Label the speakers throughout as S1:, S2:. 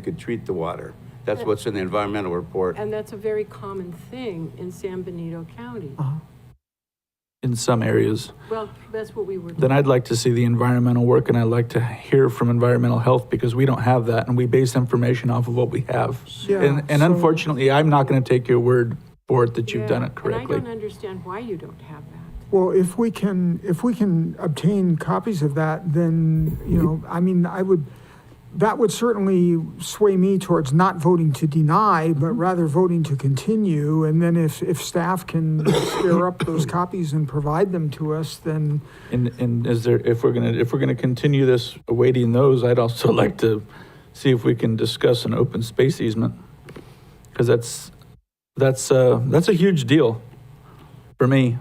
S1: You could treat the water. That's what's in the environmental report.
S2: And that's a very common thing in San Benito County.
S3: Uh-huh. in some areas.
S2: Well, that's what we were.
S3: Then I'd like to see the environmental work and I'd like to hear from environmental health because we don't have that and we base information off of what we have.
S4: Yeah,
S3: And, and
S4: so-
S3: unfortunately, I'm not going to take your word for it that you've done
S2: Yeah,
S3: it correctly.
S2: And I don't understand why you don't have that.
S4: Well, if we can, if we can obtain copies of that, then, you know, I mean, I would, that would certainly sway me towards not voting to deny,
S3: Mm-hmm.
S4: but rather voting to continue. And then if, if staff can spare up those copies and provide them to us, then,
S3: And, and is there, if we're gonna, if we're gonna continue this awaiting those, I'd also like to see if we can discuss an open space easement. Cause that's, that's, uh, that's a huge deal for me.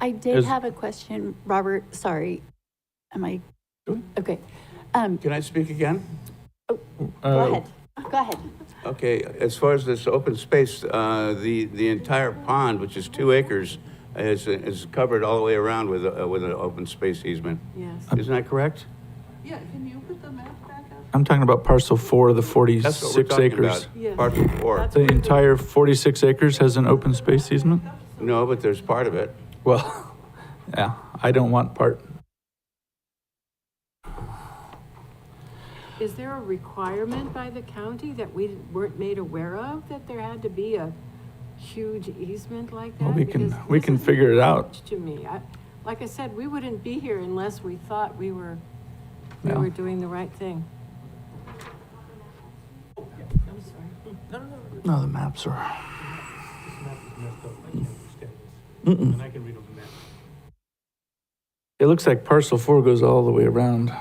S5: I did
S3: Is-
S5: have a question, Robert, sorry. Am I?
S1: Go ahead.
S5: Okay. Um,
S1: Can I speak again?
S5: Go
S3: Uh,
S5: ahead, go ahead.
S1: Okay, as far as this open space, uh, the, the entire pond, which is two acres, is, is covered all the way around with, a- with an open space easement.
S2: Yes.
S3: Uh,
S1: Isn't that correct?
S6: Yeah, can you put the map back up?
S3: I'm talking about parcel four of the
S1: That's what we're
S3: forty-six
S1: talking
S3: acres.
S1: about.
S2: Yes.
S1: Part four.
S2: That's-
S3: The entire forty-six acres has an open space easement?
S1: No, but there's part of it.
S3: Well, yeah, I don't want part,
S2: Is there a requirement by the county that we weren't made aware of, that there had to be a huge easement like that?
S3: well, we can,
S2: Because
S3: we
S2: this
S3: can
S2: is
S3: figure it out.
S2: huge To me, I, like I said, we wouldn't be here unless we thought we were, we
S3: Yeah.
S2: were doing the right thing. I'm sorry.
S3: No, the maps are,
S7: This map is messed up, I can't understand this. And I can read on the map.
S3: it looks like parcel four goes all the way around.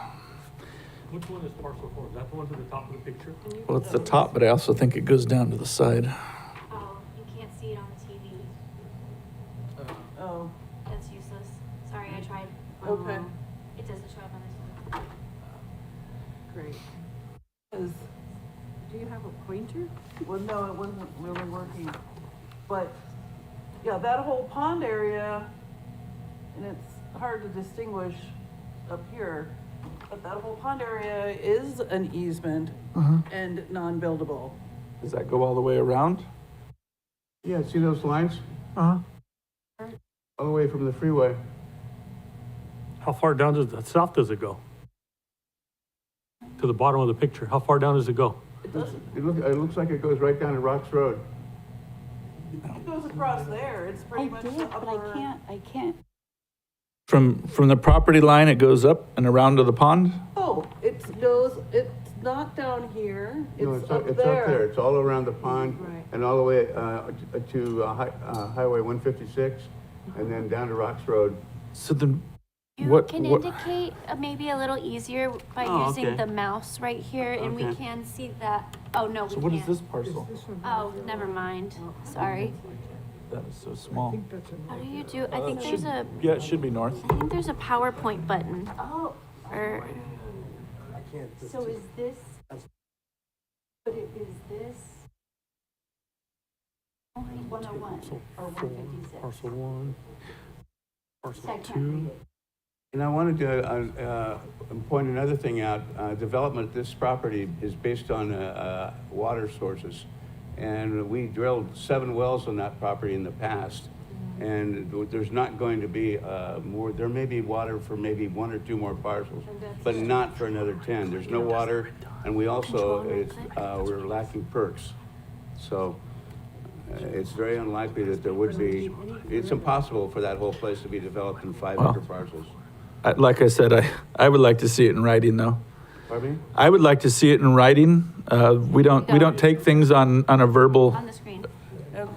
S7: Which one is parcel four? Is that the one to the top of the picture?
S3: Well, it's the top, but I also think it goes down to the side.
S8: Oh, you can't see it on the TV.
S6: Oh,
S8: That's useless. Sorry, I tried.
S6: Okay.
S8: Um, It doesn't show up on the TV.
S2: Great. Is- Do you have a pointer?
S6: well, no, it wasn't really working. But, yeah, that whole pond area, and it's hard to distinguish up here, but that whole pond area is an easement
S4: uh-huh.
S6: and non-buildable.
S3: Does that go all the way around?
S1: Yeah, see those lines?
S4: Uh-huh.
S1: All the way from the freeway.
S7: How far down does, the south does it go? To the bottom of the picture, how far down does it go?
S6: It doesn't,
S1: It looks, it looks like it goes right down to Rocks Road.
S6: it goes across there, it's
S5: I
S6: pretty much
S5: did,
S6: the
S5: but I
S6: upper.
S5: can't, I can't.
S3: From, from the property line, it goes up and around to the pond?
S6: Oh, it goes, it's not down here,
S1: No,
S6: it's up
S1: It's up there,
S6: there.
S1: it's all around the pond
S2: Right.
S1: and all the way uh, to uh, Hi- uh, Highway 156 and then down to Rocks Road.
S3: So then,
S8: You
S3: What-
S8: can
S3: what-
S8: indicate uh, maybe a little easier by
S1: Oh,
S8: using
S1: okay.
S8: the mouse right here, and we
S1: Okay.
S8: can see that. Oh no,
S3: so
S8: we
S3: what is
S8: can't.
S3: this parcel?
S8: Oh, never mind. Sorry.
S3: That is so small.
S8: How do you do? I think there's a
S3: Yeah, it should be north.
S8: I think there's a PowerPoint button.
S5: Oh,
S8: Or
S5: so is this? But it is this? Only 101 or 156?
S7: Parcel one,
S5: I
S7: parcel
S5: can't read
S7: two.
S5: it.
S1: And I wanted to uh, uh, point another thing out. Uh, Development, of this property is based on uh, uh, water sources. And we drilled seven wells on that property in the past. And there's not going to be uh, more, there may be water for maybe one or two more parcels, but not for another 10. There's no water, and we also, it's, uh, we're lacking perks. So uh, it's very unlikely that there would be, it's impossible for that whole place to be developed in 500 parcels.
S3: I- Like I said, I, I would like to see it in writing though.
S1: Pardon me?
S3: I would like to see it in writing. Uh, we don't, we don't take things on, on a verbal,
S8: on the screen.
S6: Okay.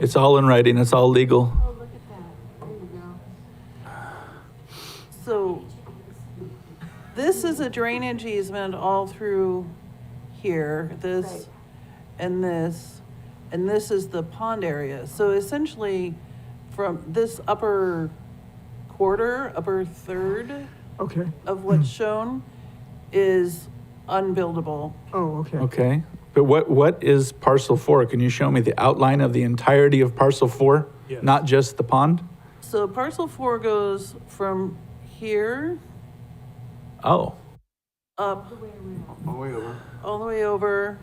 S3: it's all in writing, it's all legal.
S2: Oh, look at that. There you go.
S6: So this is a drainage easement all through here, this and this, and this is the pond area. So essentially, from this upper quarter, upper third
S4: Okay,
S6: of what's shown is unbuildable.
S4: oh, okay.
S3: Okay, but what, what is parcel four? Can you show me the outline of the entirety of parcel four?
S7: Yes.
S3: Not just the pond?
S6: So parcel four goes from here
S3: Oh.
S6: up,
S1: Oh, wait, over.
S6: all the way over